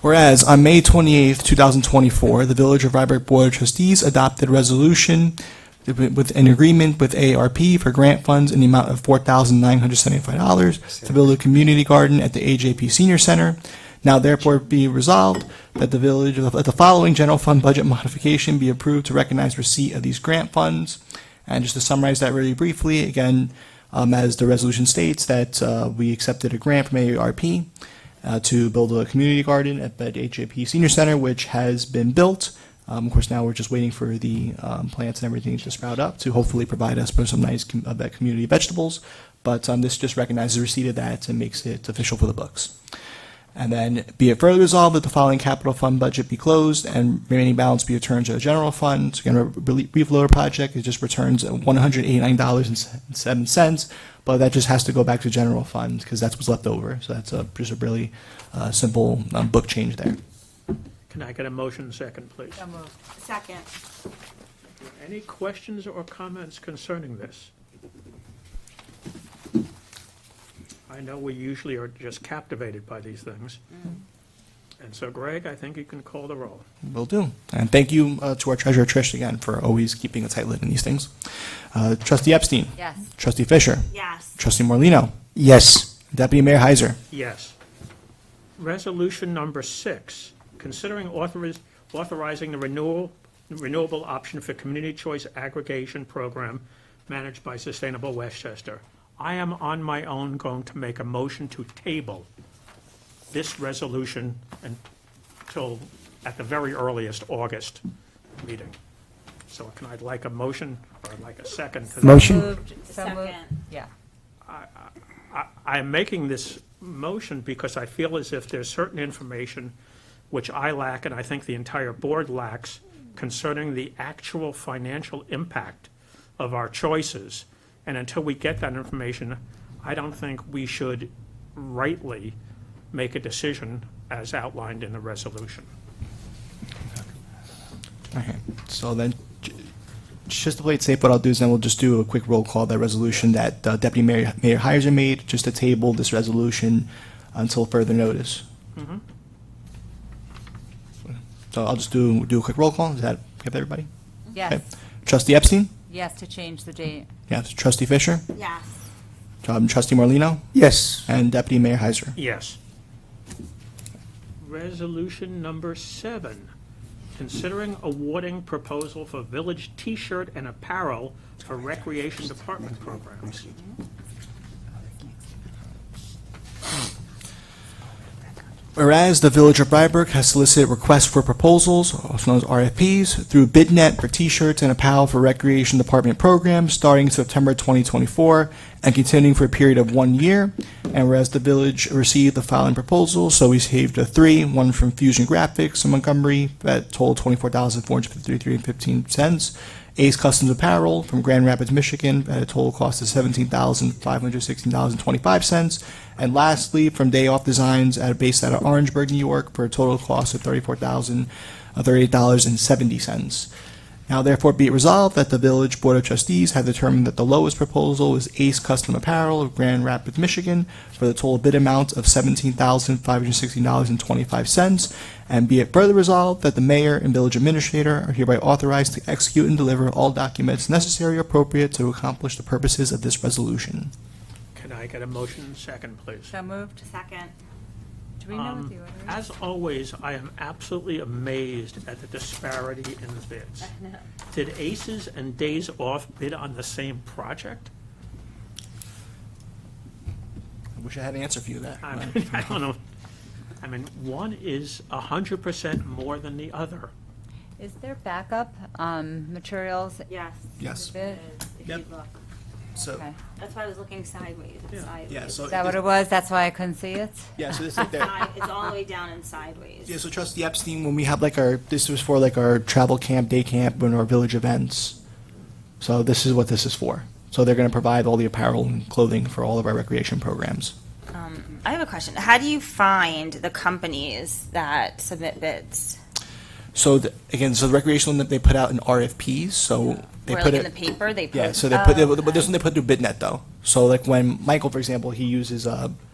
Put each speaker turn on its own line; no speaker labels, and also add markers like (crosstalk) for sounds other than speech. Whereas on May 28th, 2024, the Village of Rybrook Board of Trustees adopted resolution with an agreement with ARP for grant funds in the amount of $4,975 to build a community garden at the AJP Senior Center. Now therefore be resolved that the village, that the following general fund budget modification be approved to recognize receipt of these grant funds. And just to summarize that really briefly, again, um, as the resolution states, that uh, we accepted a grant from AARP uh, to build a community garden at the HAP Senior Center, which has been built. Um, of course, now we're just waiting for the um, plants and everything to sprout up to hopefully provide us with some nice com- uh, that community vegetables. But um, this just recognizes the receipt of that and makes it official for the books. And then be it further resolved that the following capital fund budget be closed and remaining balance be returned to the general fund. So Again, re- relief loader project, it just returns one hundred eighty-nine dollars and seven cents, but that just has to go back to general fund because that's what's left over. So that's a, just a really, uh, simple, um, book change there.
Can I get a motion second, please?
So moved. Second.
Any questions or comments concerning this? I know we usually are just captivated by these things. And so Greg, I think you can call the roll.
Will do. And thank you, uh, to our treasurer Trish again for always keeping a tight lid on these things. Uh, trustee Epstein.
Yes.
Trustee Fisher.
Yes.
Trustee Morlino,
Yes.
Deputy Mayor Heiser.
Yes. Resolution number six, considering authoriz- authorizing the renewal, renewable option for community choice aggregation program managed by Sustainable Westchester. I am on my own going to make a motion to table this resolution until, at the very earliest, August meeting. So can I like a motion or like a second to that?
Motion?
Second.
Yeah.
I'm making this motion because I feel as if there's certain information which I lack, and I think the entire board lacks, concerning the actual financial impact of our choices. And until we get that information, I don't think we should rightly make a decision as outlined in the resolution.
Okay, so then, j- just to play it safe, what I'll do is then we'll just do a quick roll call, that resolution that uh, Deputy Mayor, Mayor Heiser made, just to table this resolution until further notice. So I'll just do, do a quick roll call, is that, give everybody? Okay.
Yes,
Trustee Epstein?
yes, to change the date.
Yes. Trustee Fisher?
Yes.
Um, Trustee Morlino,
Yes.
And Deputy Mayor Heiser?
Yes. Resolution number seven, considering awarding proposal for village T-shirt and apparel for recreation department programs.
Whereas the Village of Rybrook has solicited requests for proposals, also known as RFPs, through BidNet for T-shirts and apparel for Recreation Department programs starting September 2024 and continuing for a period of one year. And whereas the village received the following proposals, so we received a three, one from Fusion Graphics in Montgomery that totaled $24,453.15. Ace Customs Apparel from Grand Rapids, Michigan, at a total cost of seventeen thousand five hundred sixteen dollars and twenty-five cents. And lastly, from Day Off Designs, at based out of Orangeburg, New York, for a total cost of thirty-four thousand uh, thirty-eight dollars and seventy cents. Now therefore be it resolved that the Village Board of Trustees have determined that the lowest proposal is Ace Custom Apparel of Grand Rapids, Michigan, for the total bid amount of seventeen thousand five hundred sixteen dollars and twenty-five cents. And be it further resolved that the mayor and village administrator are hereby authorized to execute and deliver all documents necessary or appropriate to accomplish the purposes of this resolution.
Can I get a motion second, please? Um,
So moved.
Second.
Do we know what the order is?
As always, I am absolutely amazed at the disparity in the bids. Did Aces and Days Off bid on the same project?
I wish I had an answer for you there.
I
(laughs)
mean, (laughs) I don't know. I mean, one is 100% more than the other.
Is there backup um, materials?
Yes. oh,
Yes, Oh,
Bit?
If you
Yep.
look.
so,
Okay.
That's why I was looking sideways. It's
Yeah.
sideways.
yeah, so.
Is that what it was? That's why I couldn't see it?
Yeah, so this is
(laughs)
there.
Side- It's all the way down and sideways.
Yeah, so Trustee Epstein, when we had like our, this was for like our travel camp, day camp, and our village events. So this is what this is for. So they're going to provide all the apparel and clothing for all of our recreation programs.
Um, I have a question. How do you find the companies that submit bids?
So th- again, so the recreational, they put out in RFPs, so they
Or
put
like in the
it.
paper, they post?
Yeah, so they put,
Oh,
but this one they put through BidNet though. So like when Michael, for example, he uses, uh,